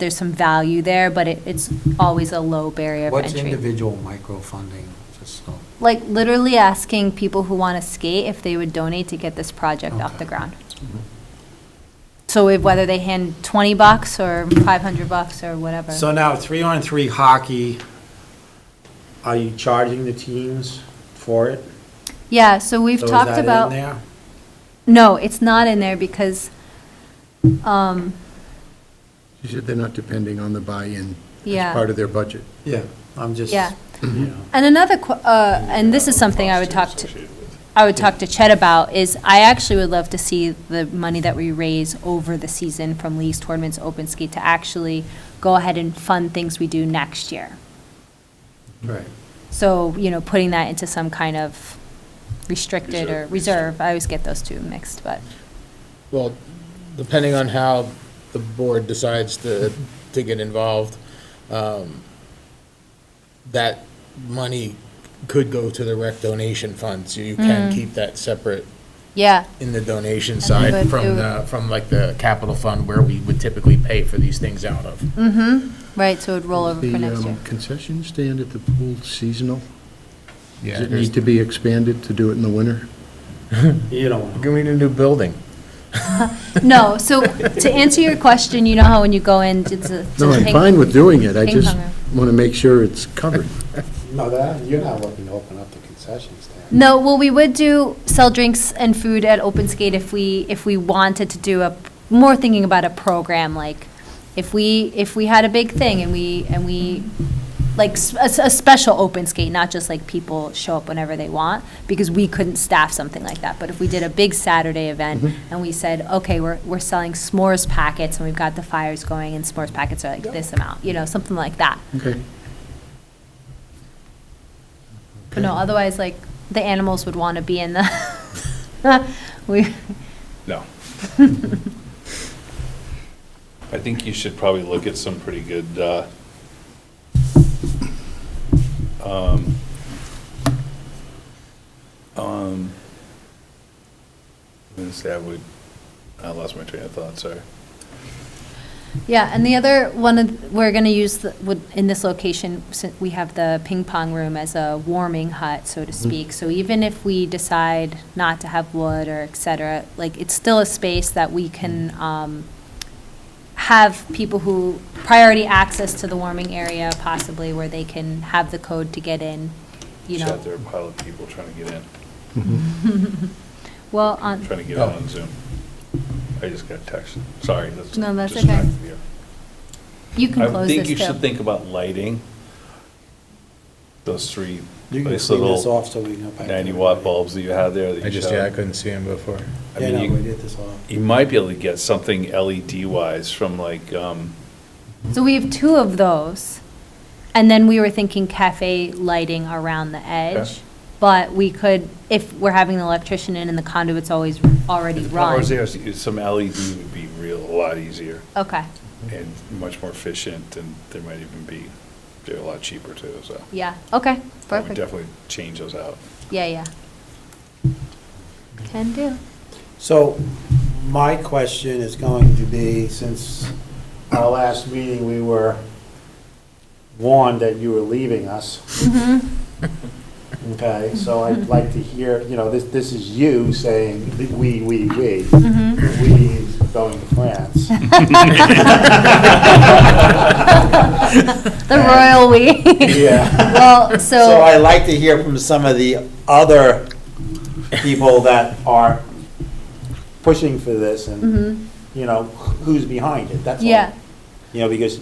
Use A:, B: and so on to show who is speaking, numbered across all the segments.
A: there's some value there, but it, it's always a low barrier of
B: What's
A: entry.
B: individual microfunding, just so?
A: Like literally asking people who want to skate if they would donate to get this project off the
B: Okay.
A: ground.
C: Mm-hmm.
A: So if, whether they hand twenty bucks or five hundred bucks or whatever.
C: So now, three-on-three hockey, are you charging the teams for it?
A: Yeah, so we've
C: So is
A: talked
C: that in
A: about.
C: there?
A: No, it's not in there because, um,
D: You said they're not depending on the buy-in
A: Yeah.
D: as part of their budget.
C: Yeah, I'm just,
A: yeah.
C: you know,
A: And another, qu- uh, and this is something I would talk to, I would talk to Chet about, is I actually would love to see the money that we raise over the season from leagues, tournaments, open skate to actually go ahead and fund things we do next year.
C: right.
A: So, you know, putting that into some kind of restricted or reserve, I always get those two mixed, but,
E: Well, depending on how the board decides to, to get involved, um, that money could go to the rec donation fund, so you
A: Mm.
E: can keep that separate
A: yeah,
E: in the donation
A: That's good.
E: side
A: It would-
E: from the, from like the capital fund where we would typically pay for these things out of.
A: right, so it would roll over
D: The,
A: for next
D: um,
A: year.
D: concession stand at the pool seasonal?
E: Yeah,
D: Does it
E: there's-
D: need to be expanded to do it in the winter?
C: You don't know.
E: Give me a new building.
D: um,
A: No, so to answer your question, you know how when you go in, it's a. it's a
D: No, I'm
A: ping-
D: fine with doing it, I
A: ping
D: just
A: pong room.
D: want to make sure it's covered.
C: No, that, you're not looking to open up the concession stand.
A: No, well, we would do sell drinks and food at Open Skate if we, if we wanted to do a, more thinking about a program, like, if we, if we had a big thing and we, and we, like, s- a, s- a special Open Skate, not just like people show up whenever they want, because we couldn't staff something like that, but if we did a big Saturday event and we said, okay, we're, we're selling s'mores packets and we've got the fires going and s'mores packets are like this amount, you know, something like that.
D: Okay.
A: But no, otherwise, like, the animals would want to be in the, we,
F: No. I think you should probably look at some pretty good, uh, um, um, I'm gonna say I would, I lost my train of thought, sorry.
A: yeah, and the other one, of- we're going to use, the- would- in this location, si- we have the ping pong room as a warming hut, so to speak. So even if we decide not to have wood or et cetera, like, it's still a space that we can um, have people who, priority access to the warming area possibly, where they can have the code to get in, you know.
F: Shot there, a pile of people trying to get in,
A: Well, um, on.
F: trying to get on Zoom. I just got a text, sorry. that's-
A: No, that's okay.
F: distracted here.
A: You can
F: I
A: close
F: think
A: this
F: you
A: too.
F: should think about lighting. Those three,
C: You can
F: nice
C: clean this
F: little
C: off so we can. go back to
F: ninety watt
C: everybody.
F: bulbs that you have there that
E: I
F: you
E: just,
F: showed.
E: yeah, I couldn't see him before.
F: I
C: Yeah, no,
F: mean,
C: we
F: you,
C: did this all.
F: you might be able to get something LED wise from like, um,
A: So we have two of those, and then we were thinking cafe lighting around the edge.
F: Okay.
A: But we could, if we're having the electrician in and the conduit's always already
F: if power's
A: run.
F: there, s- some LED would be real, a lot easier
A: Okay,
F: and much more efficient and there might even be, they're a lot cheaper too, so.
A: yeah, okay,
F: I would
A: perfect.
F: definitely change those out.
A: Yeah, yeah. Can do.
C: So my question is going to be, since our last meeting, we were warned that you were leaving us. Okay, so I'd like to hear, you know, this, this is you saying, we, we, we. We is going to France.
A: The royal we.
C: Yeah.
A: Well,
C: So
A: so,
C: I like to hear from some of the other people that are pushing for this and,
A: Mhm.
C: you know, who's behind it, that's all.
A: yeah.
C: You know, because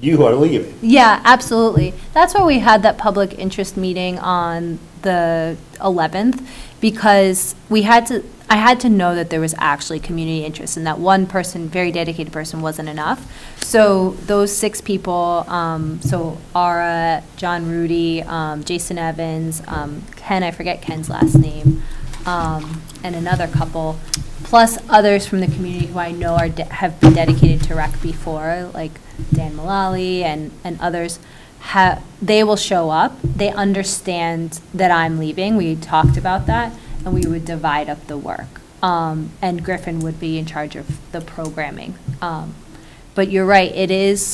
C: you are leaving.
A: Yeah, absolutely. That's why we had that public interest meeting on the 11th, because we had to, I had to know that there was actually community interest, and that one person, very dedicated person, wasn't enough. So those six people, um, so Ara, John Rudy, um, Jason Evans, um, Ken, I forget Ken's last name, um, and another couple, plus others from the community who I know are, de- have been dedicated to rec before, like Dan Mullally and, and others, ha, they will show up. They understand that I'm leaving. We talked about that, and we would divide up the work. Um, and Griffin would be in charge of the programming. Um, But you're right, it is